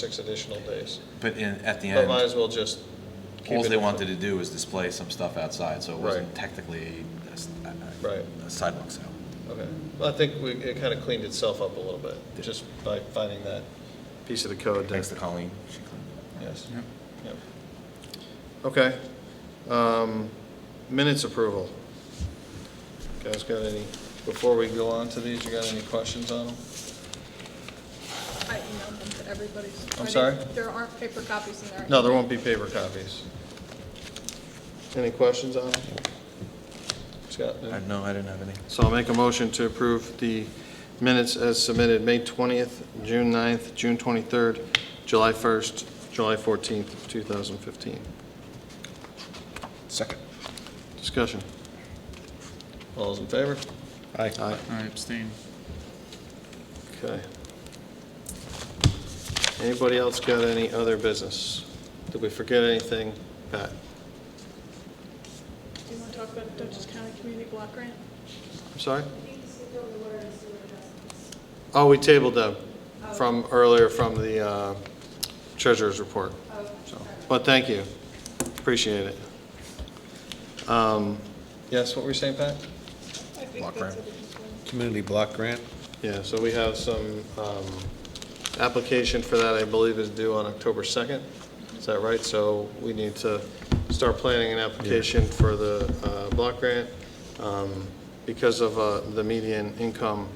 six additional days. But in, at the But might end, as well just keep all it. they wanted to do was display some stuff outside, so it wasn't Right. technically a s- a- Right, a sidewalk sale. okay. Well, I think we, it kind of cleaned itself up a little bit, Did. just by finding that piece of the code. that- Thanks to Colleen. She cleaned it up. Yes. Yep. Okay. Um, Minutes approval. Guys got any, before we go on to these, you got any questions on them? I emailed them to everybody. I'm Are they- sorry? There aren't paper copies in there. No, there won't be paper copies. Any questions on them? Scott? any? I- No, I didn't have any. So I'll make a motion to approve the minutes as submitted, May 20th, June 9th, June 23rd, July 1st, July 14th, 2015. Second. Discussion. All those in favor? Aye. Aye. I abstain. Okay. Anybody else got any other business? Did we forget anything, Pat? Do you want to talk about Dutchess County Community Block Grant? I'm sorry? Oh, we tabled them from earlier from the uh, treasurer's report. So, But thank you. Appreciate it. Um, Yes, what were you saying, Pat? I think Block that's grant. it. Community block grant? Yeah, so we have some um, application for that, I believe, is due on October 2nd. Is that right? So we need to start planning an application for the uh, block grant. Um, Because of uh, the median income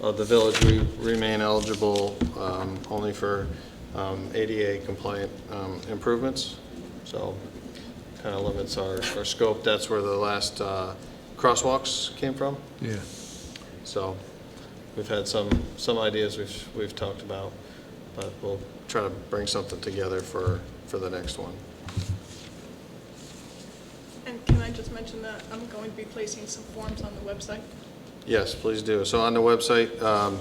of the village, we remain eligible um, only for um, ADA compliant um, improvements. So kind of limits our our scope. That's where the last uh, crosswalks came from. Yeah. So we've had some, some ideas we've, we've talked about, but we'll try to bring something together for, for the next one. And can I just mention that I'm going to be placing some forms on the website? Yes, please do. So on the website, um,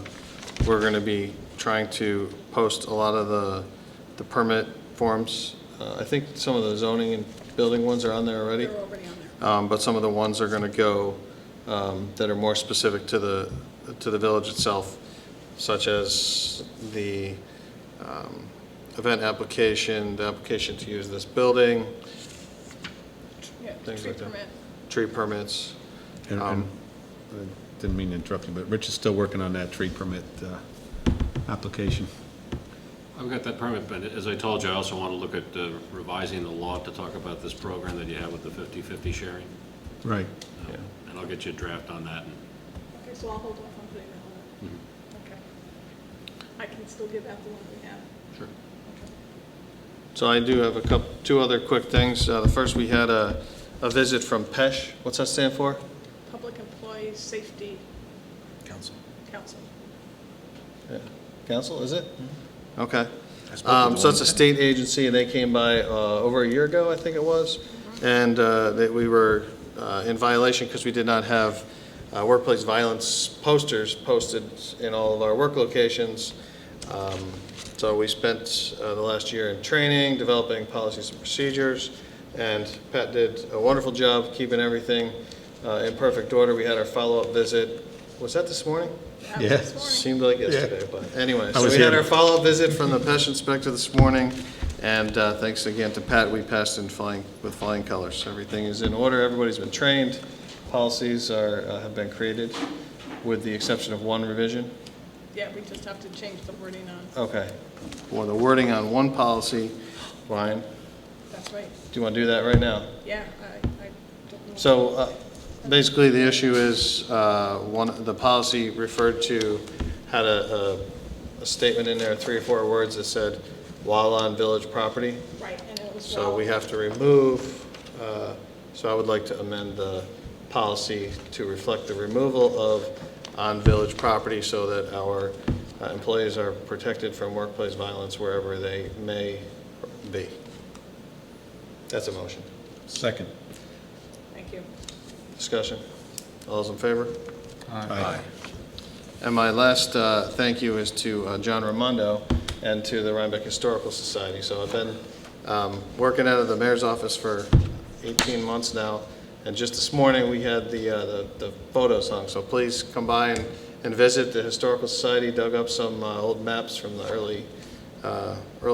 we're going to be trying to post a lot of the, the permit forms. Uh, I think some of the zoning and building ones are on there already. They're already on there. Um, But some of the ones are going to go, um, that are more specific to the, to the village itself, such as the um, event application, the application to use this building, Yeah, the Things tree like that. permit. tree permits. And, Um, and, I didn't mean to interrupt you, but Rich is still working on that tree permit, uh, application. I've got that permit, but as I told you, I also want to look at uh, revising the law to talk about this program that you have with the 50/50 sharing. Right. Um, And I'll get you a draft on that. and- Okay, so I'll hold off on putting that on. Mm-hmm. Okay. I can still give out the one we have. Sure. So I do have a couple, two other quick things. Uh, The first, we had a, a visit from PESH. What's that stand for? Public Employee Safety Council. Council. Yeah. Council, is it? Okay. I spoke to Um, So one- it's a state agency, and they came by uh, over a year ago, I think it was, and uh, that we were uh, in violation because we did not have uh, workplace violence posters posted in all of our work locations. Um, So we spent uh, the last year in training, developing policies and procedures, and Pat did a wonderful job keeping everything uh, in perfect order. We had our follow-up visit, was that this morning? That was this Yeah. morning. Seemed like yesterday, but anyway, I so was we had here. our follow-up visit from the pest inspector this morning, and uh, thanks again to Pat, we passed in flying, with flying colors. Everything is in order, everybody's been trained, policies are, uh, have been created, with the exception of one revision. Yeah, we just have to change the wording on, Okay. Well, the wording on one policy, Ryan, do that's right. you want to do that right now? Yeah, I, I don't know. So uh, basically, the issue is, uh, one, the policy referred to had a, a- a statement in there, three or four words that said, while on village property. Right, and it was. So well- we have to remove, uh, so I would like to amend the policy to reflect the removal of on village property so that our uh, employees are protected from workplace violence wherever they may be. That's a motion. Second. Thank you. Discussion? All's in favor? Aye. And my last uh, thank you is to uh, John Raimondo and to the Rhinebeck Historical Society. So I've been um, working out of the mayor's office for 18 months now, and just this morning, we had the, uh, the- the photos hung. So please come by and and visit the Historical Society, dug up some uh, old maps from the early uh, earlier